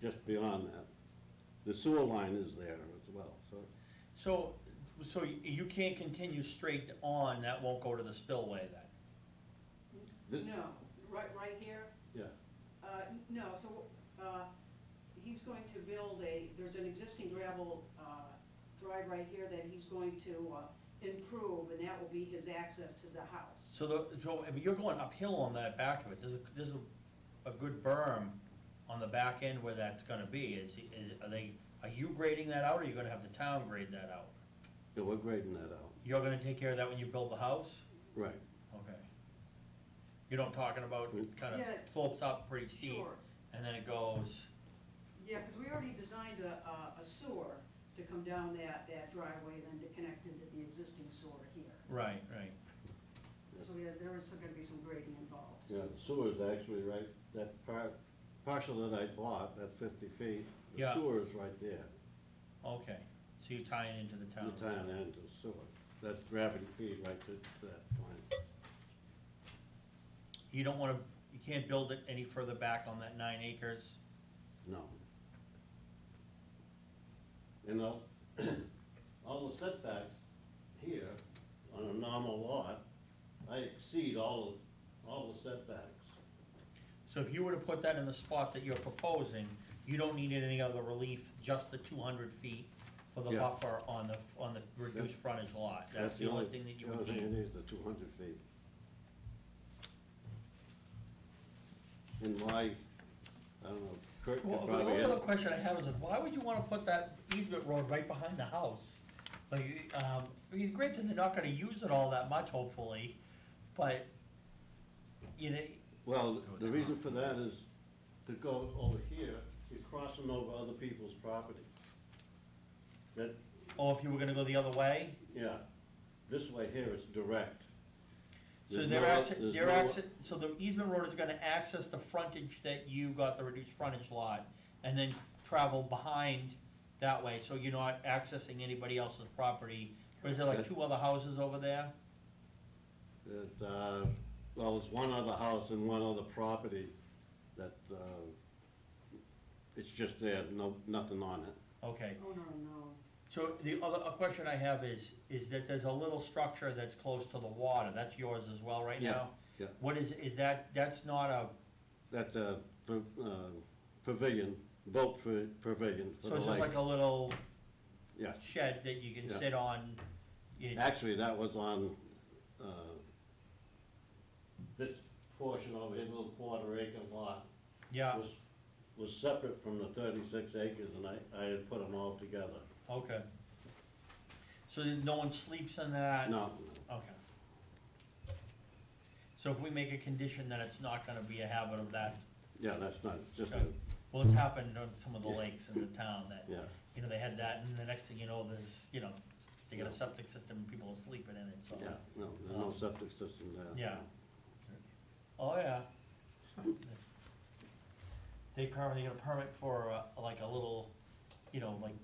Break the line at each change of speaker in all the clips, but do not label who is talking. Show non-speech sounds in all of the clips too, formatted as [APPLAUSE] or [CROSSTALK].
just beyond that. The sewer line is there as well, so
So, so y- you can't continue straight on, that won't go to the spillway then?
this,
No, right, right here,
yeah,
uh, no, so, uh, he's going to build a, there's an existing gravel, uh, drive right here that he's going to, uh, improve, and that will be his access to the house.
So the, so, I mean, you're going uphill on that back of it, there's a, there's a, a good berm on the back end where that's gonna be, is, is, are they, are you grading that out, or you're gonna have the town grade that out?
yeah, we're grading that out,
You're gonna take care of that when you build the house?
right.
Okay. You know what I'm talking about, it kind
Yeah.
of slopes up pretty steep,
Sure,
and then it goes,
yeah, because we already designed a, a- a sewer to come down that, that driveway and then to connect into the existing sewer here.
right, right.
So yeah, there is gonna be some grading involved.
Yeah, the sewer's actually right, that part, partial that I bought, that fifty feet, the
Yeah.
sewer is right there.
Okay, so you tie it into the
The
town.
town and the sewer. That's gravity feed right to to that point.
You don't wanna, you can't build it any further back on that nine acres?
No. And all, [CLEARS THROAT] all the setbacks here on a normal lot, I exceed all, of- all the setbacks.
So if you were to put that in the spot that you're proposing, you don't need any other relief, just the two hundred feet for the
Yeah.
buffer on the, on the reduced frontage lot. That's the only thing that you
the
would
only thing
need.
it is, the two hundred feet. And why, I don't know, Kurt could
Well, the only other
probably,
question I have is, why would you wanna put that easement road right behind the house? Like, um, I mean, granted, they're not gonna use it all that much, hopefully, but, you know,
well,
Oh,
the
it's
reason
not.
for that is to go over here, you're crossing over other people's property. That,
or if you were gonna go the other way,
Yeah, this way here is direct.
So
There's
they're
no-
access,
there's
they're
no-
access, so the easement road is gonna access the frontage that you got, the reduced frontage lot, and then travel behind that way, so you're not accessing anybody else's property. What is there, like
Okay.
two other houses over there?
that, uh, Well, it's one other house and one other property that, uh, it's just there, no, nothing on it.
Okay,
Oh, no, no.
so the other, a question I have is, is that there's a little structure that's close to the water, that's yours as well right
Yeah,
now?
yeah.
What is, is that, that's not a,
That's a pa- uh, pavilion, boat pa- pavilion for
so
the
it's just like
lake.
a little
Yeah,
shed that you can
Yeah.
sit on? you-
actually, that was on uh, this portion over here, little quarter acre lot.
Yeah,
was, was separate from the thirty-six acres, and I, I had put them all together.
okay. So then no one sleeps in that?
No,
Okay. So if we make a condition that it's not gonna be a habit of that,
yeah, that's not, it's just,
okay.
a-
well, it's happened on some of the
Yeah.
lakes in the town that,
yeah,
you know, they had that, and the next thing you know, there's, you know, they got a septic system, and people are sleeping in it, so.
yeah, no, there's no septic system there.
Yeah. Oh, yeah. They probably get a permit for uh, like a little, you know, like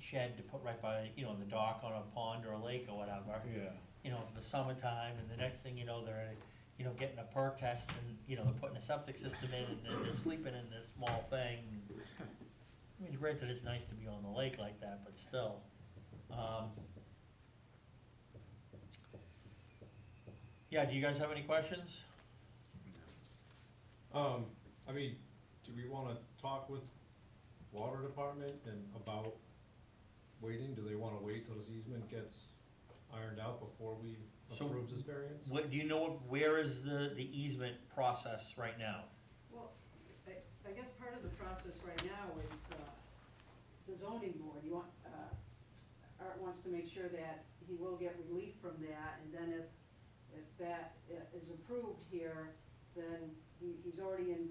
shed to put right by, you know, the dock on a pond or a lake or whatever.
Yeah.
you know, for the summertime, and the next thing you know, they're, you know, getting a perk test, and, you know, they're putting a septic system in, and then they're sleeping in this small thing. I mean, granted, it's nice to be on the lake like that, but still. Um, Yeah, do you guys have any questions?
Um, I mean, do we wanna talk with water department and about waiting? Do they wanna wait till this easement gets ironed out before we
So-
approve this variance?
What, do you know, what- where is the, the easement process right now?
Well, I, I guess part of the process right now is, uh, the zoning board, you want, uh, Art wants to make sure that he will get relief from that, and then if, if that i- is approved here, then he, he's already in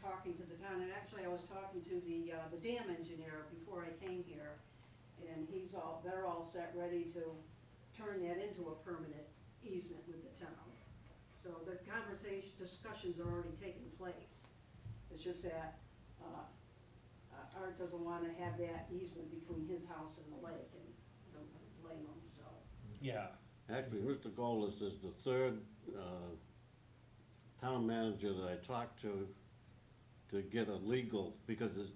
talking to the town, and actually, I was talking to the, uh, the dam engineer before I came here, and he's all, they're all set, ready to turn that into a permanent easement with the town. So the conversation, discussions are already taking place. It's just that uh, uh, Art doesn't want to have that easement between his house and the lake, and I don't blame him, so.
Yeah,
Actually, Mr. Golis is the third, uh, town manager that I talked to to get a legal, because there's